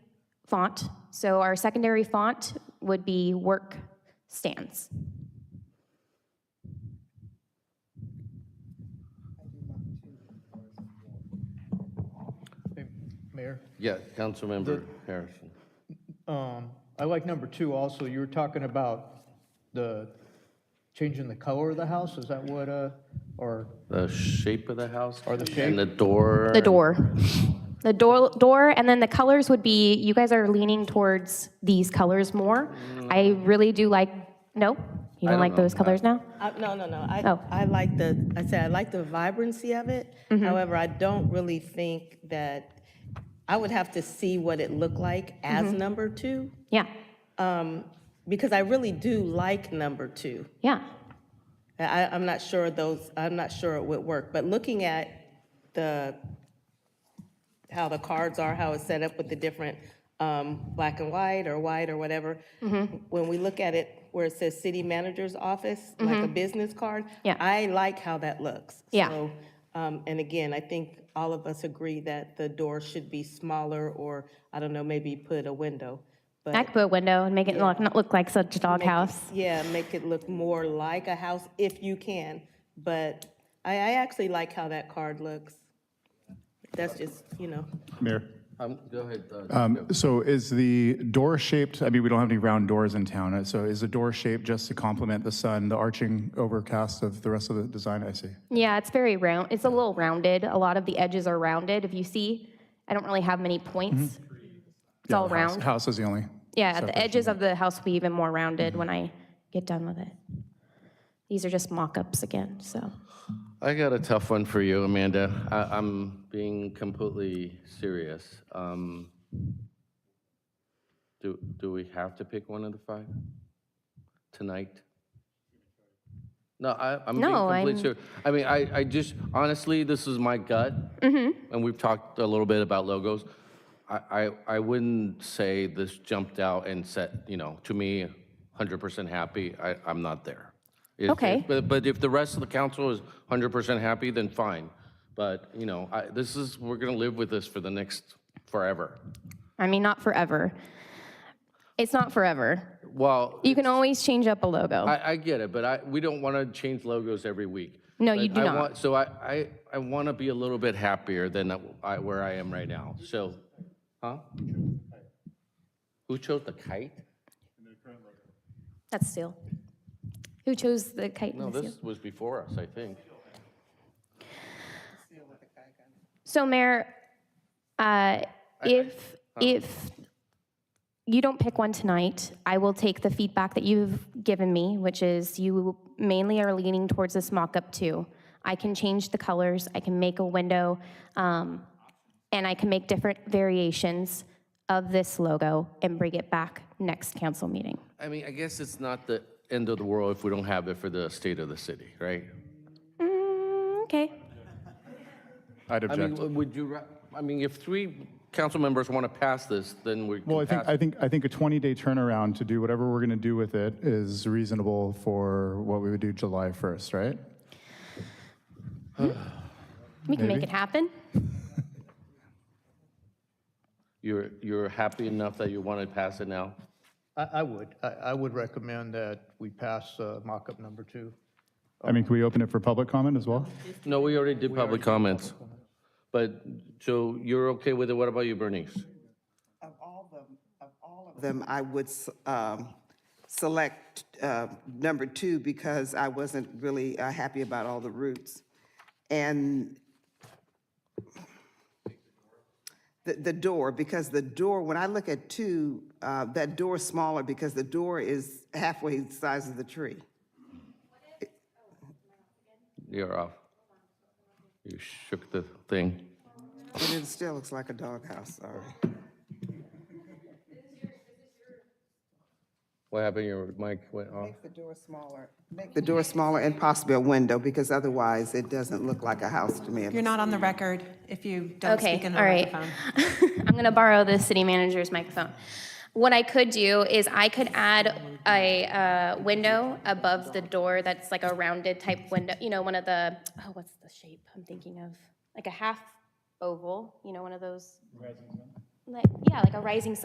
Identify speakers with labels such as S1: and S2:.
S1: font. So our secondary font would be Work Stands.
S2: Mayor,
S3: Yeah, Councilmember Harrison.
S2: um, I like number two also. You were talking about the changing the color of the house. Is that what, uh, or,
S3: The shape of the house?
S2: Or the
S3: And the door?
S1: The door. The door, door, and then the colors would be, you guys are leaning towards these colors more. I really do like, no? You don't
S3: don't
S1: like
S3: know.
S1: those colors now?
S4: I- No, no, no. I,
S1: Oh.
S4: I like the, I said, I like the vibrancy of it. However, I don't really think that, I would have to see what it looked like as number two,
S1: Yeah,
S4: because I really do like number two.
S1: yeah.
S4: I, I'm not sure those, I'm not sure it would work, but looking at the, how the cards are, how it's set up with the different, um, black and white or white or whatever,
S1: Mm-hmm.
S4: when we look at it where it says city manager's office, like a business card,
S1: Mm-hmm. Yeah.
S4: I like how that looks.
S1: Yeah.
S4: So, Um, and again, I think all of us agree that the door should be smaller or, I don't know, maybe put a window. But
S1: I could put a window and make it look, not look like such a doghouse.
S4: yeah, make it look more like a house if you can. But I, I actually like how that card looks. That's just, you know,
S5: Mayor,
S3: Um, Go ahead, Doug.
S5: so is the door shaped, I mean, we don't have any round doors in town, uh, so is the door shaped just to complement the sun, the arching overcast of the rest of the design? I see.
S1: Yeah, it's very round, it's a little rounded. A lot of the edges are rounded. If you see, I don't really have many points. It's
S5: Yeah,
S1: all
S5: the
S1: round.
S5: house- House is the only.
S1: Yeah, the edges of the house will be even more rounded when
S3: Mm-hmm.
S1: I get done with it. These are just mock-ups again, so.
S3: I got a tough one for you, Amanda. I, I'm being completely serious. Um, do, do we have to pick one of the five tonight? No, I, I'm being
S1: No,
S3: completely
S1: I'm-
S3: serious. I mean, I, I just, honestly, this is my gut. Mm-hmm. And we've talked a little bit about logos. I, I, I wouldn't say this jumped out and said, you know, to me, 100% happy. I, I'm not there. If- if-
S1: Okay.
S3: But, but if the rest of the council is 100% happy, then fine. But, you know, I, this is, we're going to live with this for the next forever.
S1: I mean, not forever. It's not forever.
S3: Well,
S1: You can always change up a logo.
S3: I, I get it, but I, we don't want to change logos every week.
S1: No, you
S3: But
S1: do
S3: I
S1: not.
S3: want- So I, I, I want to be a little bit happier than I, where I am right now. So, huh? Who chose the kite?
S1: That's steel. Who chose the kite
S3: No,
S1: and the seal?
S3: this was before us, I think.
S1: So Mayor, uh, if, if you don't pick one tonight, I will take the feedback that you've given me, which is you mainly are leaning towards this mock-up too. I can change the colors, I can make a window, um, and I can make different variations of this logo and bring it back next council meeting.
S3: I mean, I guess it's not the end of the world if we don't have it for the state of the city, right?
S1: Mm, Okay.
S5: I'd
S3: I mean,
S5: object.
S3: would you, ra- I mean, if three council members want to pass this, then we
S5: Well, I
S3: can
S5: think,
S3: pass.
S5: I
S3: it.
S5: think, I think a 20-day turnaround to do whatever we're going to do with it is reasonable for what we would do July 1st, right?
S1: We can make
S5: Maybe.
S1: it happen.
S3: You're, you're happy enough that you want to pass it now?
S2: I, I would, I, I would recommend that we pass, uh, mock-up number two.
S5: I mean, can we open it for public comment as well?
S3: No, we already did public comments. But, so you're okay with it? What about you, Bernice?
S6: Of all of them, of all of them, I would s- um, select uh, number two because I wasn't really uh, happy about all the routes. And the, the door, because the door, when I look at two, uh, that door's smaller because the door is halfway the size of the tree.
S3: You're off. You shook the thing.
S6: But it still looks like a doghouse, sorry.
S3: What happened? Your mic went off?
S6: The door smaller. Make the door smaller and possibly a window because otherwise it doesn't look like a house to me.
S7: You're not on the record if you don't
S1: Okay,
S7: speak in the
S1: all right.
S7: microphone.
S1: I'm going to borrow the city manager's microphone. What I could do is I could add a uh, window above the door that's like a rounded type window, you know, one of the, oh, what's the shape I'm thinking of? Like a half oval, you know, one of those. Rising sun? Like, yeah, like a rising sun.